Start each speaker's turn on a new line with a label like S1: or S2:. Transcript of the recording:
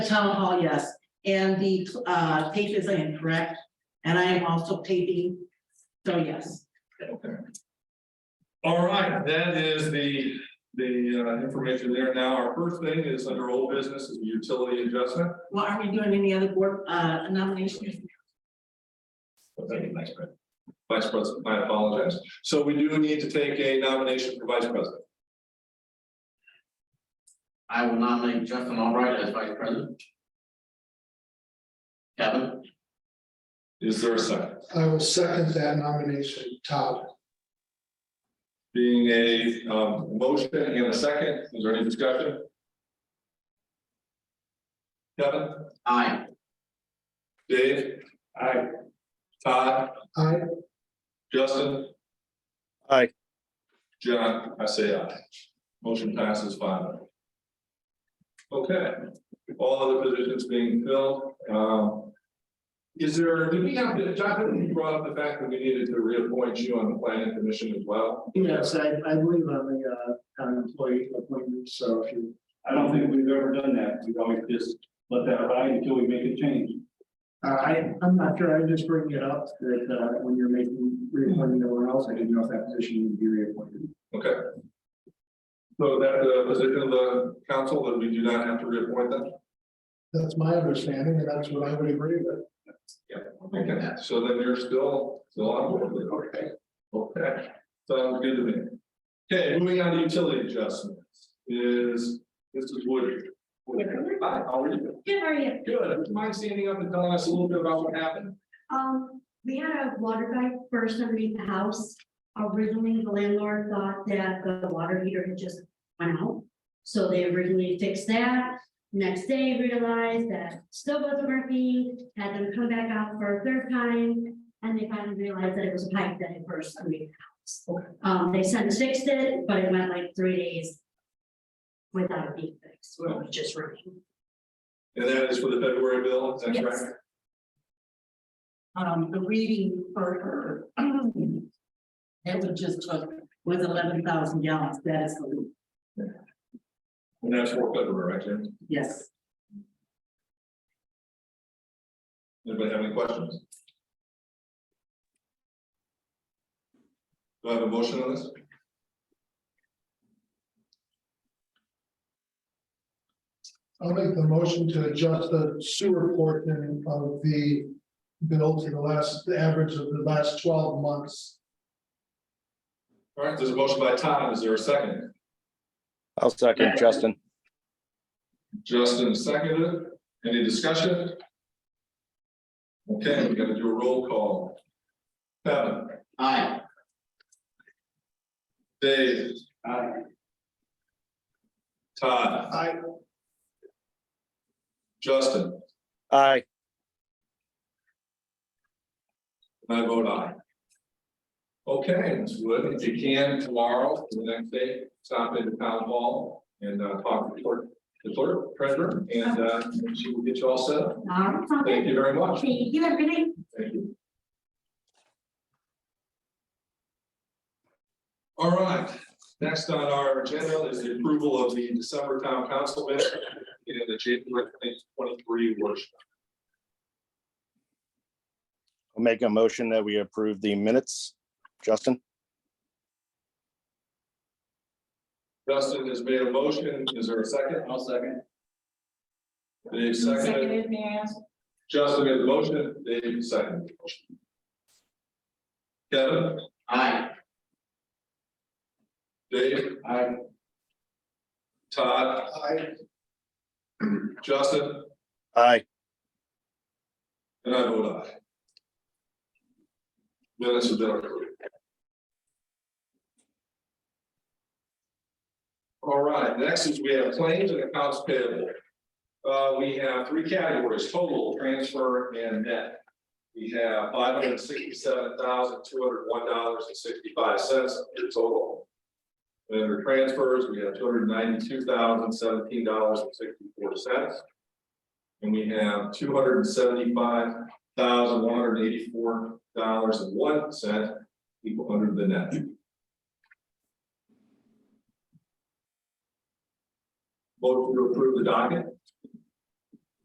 S1: town hall, yes, and the uh tape is incorrect, and I am also taping, so yes.
S2: All right, that is the, the uh, information there. Now, our first thing is under old business is utility adjustment.
S1: Well, are we doing any other board uh nominations?
S2: Vice President. Vice President, I apologize. So we do need to take a nomination for Vice President.
S3: I will nominate Justin Albright as vice president. Kevin,
S2: Is there a second?
S4: I will second that nomination, Todd.
S2: Being a um, motion and a second, is there any discussion? Kevin,
S3: I,
S2: Dave? Aye. Todd?
S4: I,
S2: Justin?
S5: Aye.
S2: John, I say aye. Motion passes five. oh. Okay, all other positions being filled, um. Is there, did we have, John, you brought up the fact that we needed to reappoint you on the planning commission as well?
S6: Yes, I, I believe I'm a, uh, town employee appointment, so if you,
S7: I don't think we've ever done that. We've always just let that ride until we make a change.
S6: uh, I, I'm not sure, I'm just bringing it up that, uh, when you're making reappointment to one else, I didn't know if that position would be reappointed.
S2: Okay. So that the position of the council, that we do not have to reappoint them?
S4: that's my understanding, and that's what I would agree with.
S2: Okay, so then you're still, still on board with it, okay? Okay, sounds good to me. Okay, moving on to utility adjustments is, this is Woody. Woody, Hi, how are you?
S8: Good, how are you?
S2: Good, would you mind standing up and telling us a little bit about what happened?
S8: Um, we had a water pipe burst underneath the house. Originally, the landlord thought that the water heater had just went out. So they originally fixed that. Next day realized that still wasn't working, had them come back out for a third time. And they finally realized that it was a pipe that had burst underneath the house. Um, they sent and fixed it, but it went like three days. Without it being fixed, where it was just running.
S2: And that is for the February bill, is that
S8: Yes.
S2: correct?
S1: Um, the reading for her. That we just took was eleven thousand gallons, that is the lead,
S2: And that's for February, right, Jim?
S1: yes.
S2: Anybody have any questions? Do I have a motion on this?
S4: I'll make the motion to adjust the sewer portion of the bill to the last, the average of the last twelve months.
S2: All right, there's a motion by Tom, is there a second?
S5: I'll second Justin.
S2: Justin seconded. Any discussion? Okay, we gotta do a roll call. Kevin,
S3: I,
S2: Dave,
S7: I,
S2: Todd,
S4: I,
S2: Justin,
S5: Aye.
S2: and I vote aye. Okay, Ms. Wood, if you can tomorrow, the next day, stop into town hall and uh, talk to the clerk, the clerk, treasurer, and uh, she will get you all set up.
S8: All
S2: Thank
S8: right,
S2: you very much.
S8: thank you, everybody.
S2: Thank you. All right, next on our agenda is the approval of the December town council minutes and the January twenty-three workshop.
S5: I'll make a motion that we approve the minutes. Justin?
S2: Dustin has made a motion. Is there a second?
S7: I'll second.
S2: Dave seconded.
S9: Seconded, may I ask?
S2: Justin made the motion. Dave seconded. the motion. Kevin,
S3: I,
S2: Dave,
S7: I,
S2: Todd,
S4: I,
S2: Justin,
S5: Aye.
S2: and I vote aye. Minutes have been approved. All right, next is we have claims and accounts payable. Uh, we have three categories, total, transfer, and net. We have five hundred and sixty-seven thousand, two hundred and one dollars and sixty-five cents in total. And Under transfers, we have two hundred and ninety-two thousand, seventeen dollars and sixty-four cents. And we have two hundred and seventy-five thousand, one hundred and eighty-four dollars and one cent equal under the net. Vote to approve the docket.